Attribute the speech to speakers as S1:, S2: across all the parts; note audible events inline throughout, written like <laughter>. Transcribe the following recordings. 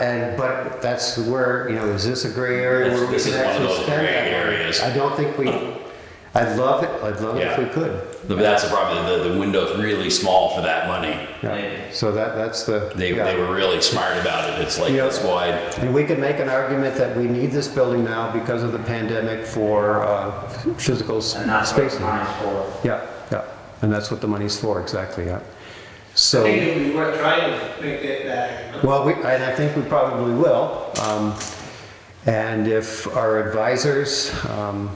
S1: and, but that's where, you know, is this a gray area where we
S2: This-
S1: can
S2: this is one of
S1: actually
S2: those
S1: spend
S2: gray
S1: that money?
S2: areas.
S1: I don't think we, I'd love it, I'd love it if
S2: Yeah.
S1: we could.
S2: But that's the problem. The, the window's really small for that money.
S1: Yeah. So that, that's the.
S2: They,
S1: yeah.
S2: they were really smart about it. It's like
S1: Yeah.
S2: this wide.
S1: And we could make an argument that we need this building now because of the pandemic for uh, physical s-
S3: And that's what
S1: spacing.
S3: mine's for.
S1: Yeah, yeah, and that's what the money's for, exactly, yeah.
S4: I
S1: So,
S4: think we were trying to make that back.
S1: well, we, and I think we probably will. um, And if our advisors, um,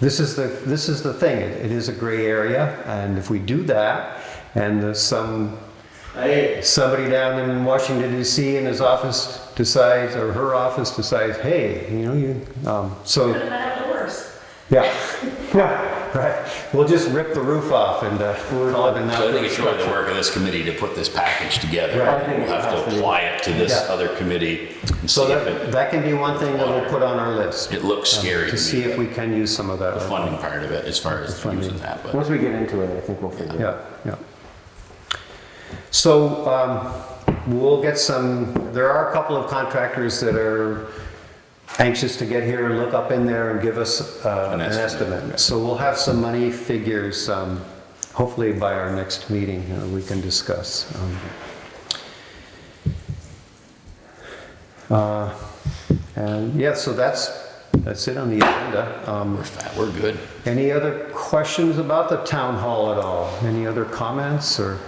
S1: this is the, this is the thing, it it is a gray area, and if we do that, and there's some
S4: I,
S1: somebody down in Washington D.C. in his office decides, or her office decides, hey, you know, you, um, so,
S5: have the worst.
S1: yeah, <laughs> yeah, right. We'll just rip the roof off and uh, we'll call it an
S2: So I think
S1: outdoor
S2: it's really the
S1: structure.
S2: work of this committee to put this package together.
S1: Right.
S2: And We'll have to apply it to this
S1: Yeah.
S2: other committee and see
S1: So
S2: if
S1: that,
S2: it,
S1: that can be one thing that we'll put on our list.
S2: it looks scary
S1: To
S2: to
S1: see
S2: me.
S1: if we can use some of that.
S2: The funding part of it, as far as using that, but
S3: Once we get into it, I think we'll figure it out.
S1: Yeah, yeah. So um, we'll get some, there are a couple of contractors that are anxious to get here and look up in there and give us uh,
S2: An
S1: an
S2: estimate.
S1: estimate. So we'll have some money figures, um, hopefully by our next meeting, uh, we can discuss. Um, uh, And yeah, so that's, that's it on the agenda. Um,
S2: we're fat, we're good.
S1: any other questions about the town hall at all? Any other comments or?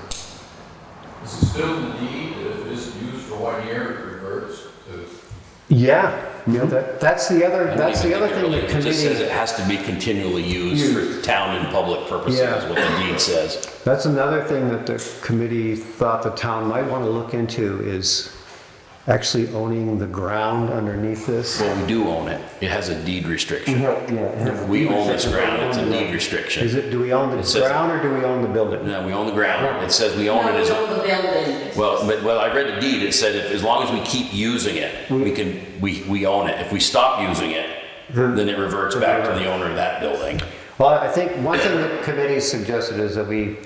S6: Is it still in the deed that if it's used for one year, it reverts to?
S1: Yeah, yeah, that, that's the other,
S2: I don't
S1: that's
S2: even
S1: the other
S2: think it
S1: thing the
S2: really- It just says
S1: committee,
S2: it has to be continually used for town and public purposes, is
S1: Yeah.
S2: what the deed says.
S1: that's another thing that the committee thought the town might want to look into is actually owning the ground underneath this.
S2: Well, we do own it. It has a deed restriction.
S3: Yeah.
S2: We own this ground, it's a deed restriction.
S1: Is it, do we own
S2: It
S1: the
S2: says-
S1: ground or do we own the building?
S2: No, we own the ground. It says we own it as,
S5: No, we own the building.
S2: well, but, well, I read the deed. It said if, as long as we keep using it, we can, we, we own it. If we stop using it, then it reverts back to the owner of that building.
S1: Well, I think one thing the committee suggested is that we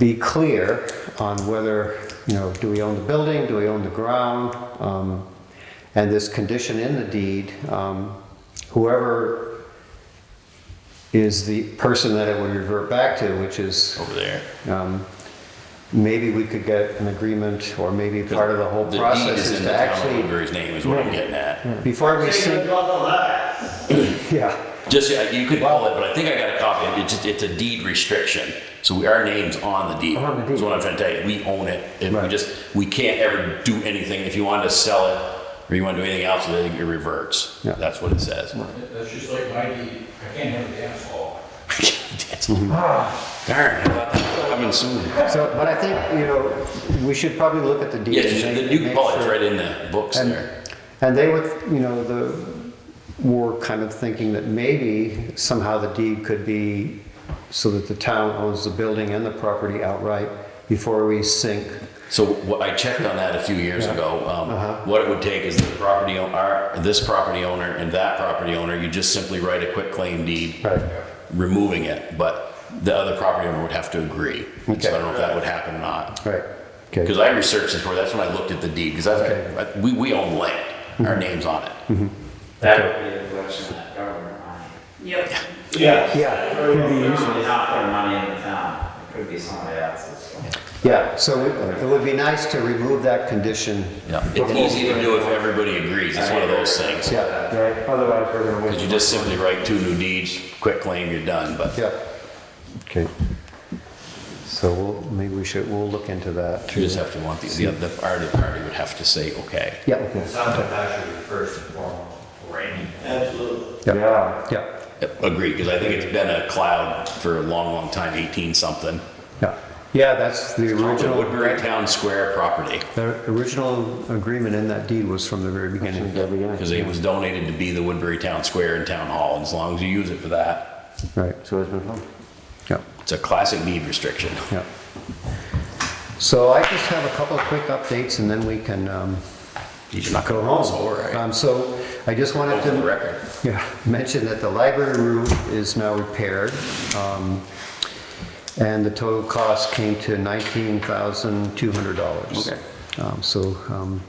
S1: be clear on whether, you know, do we own the building, do we own the ground? Um, And this condition in the deed, um, whoever is the person that it would revert back to, which is,
S2: Over there.
S1: um, maybe we could get an agreement, or maybe part of the whole
S2: The deed
S1: process
S2: is
S1: is
S2: in
S1: to
S2: the town of
S1: actually,
S2: Woodbury's name is what I'm getting at.
S1: before we
S4: I think I
S1: sink,
S4: got all that.
S1: yeah.
S2: Just, uh, you could call it, but I think I got a copy. It's just, it's a deed restriction. So we, our name's on the deed.
S1: On the deed.
S2: That's what I'm trying to tell you. We own it. If we
S1: Right.
S2: just, we can't ever do anything. If you wanted to sell it or you want to do anything else, then it reverts.
S1: Yeah.
S2: That's what it says.
S6: That's just like my deed, I can't have a dance hall.
S2: That's- <laughs> Darn, I thought that was coming soon.
S1: So, but I think, you know, we should probably look at the deed.
S2: Yeah,
S1: and
S2: the
S1: make-
S2: new
S1: make
S2: bullet's
S1: sure-
S2: right in the books
S1: And-
S2: there.
S1: And they were, you know, the, were kind of thinking that maybe somehow the deed could be so that the town owns the building and the property outright before we sink.
S2: So what I checked on that a few years
S1: Yeah.
S2: ago. Um,
S1: Uh-huh.
S2: What it would take is the property, o- our, this property owner and that property owner, you just simply write a quick claim deed
S1: Right.
S2: removing it, but the other property owner would have to agree. And So I don't know if that would happen or not.
S1: Right.
S2: Because
S1: Okay.
S2: I researched this before, that's when I looked at the deed, because that's,
S1: Okay. Mm-hmm.
S2: we, we own land, our name's on it.
S3: That would be the question that government money.
S5: Yep.
S4: Yeah.
S1: Yeah,
S3: Usually not put money in the town, it could be somebody else's.
S1: yeah, so it it would be nice to remove that condition.
S2: Yeah. It's easy to do if everybody agrees, it's one of those things.
S1: Yeah,
S3: Otherwise, we're gonna
S2: Because you just simply write two new deeds, quick claim, you're done, but.
S1: yeah. Okay. So we'll, maybe we should, we'll look into that.
S2: You just have to want the, the, the other party would have to say, okay.
S1: Yeah, okay.
S3: Sounds like that should be first and foremost, for any.
S4: Absolutely.
S1: Yeah.
S3: Yeah.
S1: Yeah,
S2: Agree, because I think it's been a cloud for a long, long time, eighteen something.
S1: yeah. Yeah, that's the
S2: The
S1: original.
S2: Woodbury Town Square property,
S1: The original agreement in that deed was from the very beginning.
S2: because it was donated to be the Woodbury Town Square and Town Hall, and as long as you use it for that,
S1: Right,
S3: So it's been fun.
S1: yeah,
S2: it's a classic need restriction.
S1: yeah. So I just have a couple of quick updates and then we can um,
S2: You're not
S1: go
S2: gonna
S1: home.
S2: roll over,
S1: Um, So I just wanted
S2: right? For the
S1: to
S2: record.
S1: <laughs> yeah, mention that the library roof is now repaired. um, And the total cost came to $19,200.
S2: Okay.
S1: Um, So um,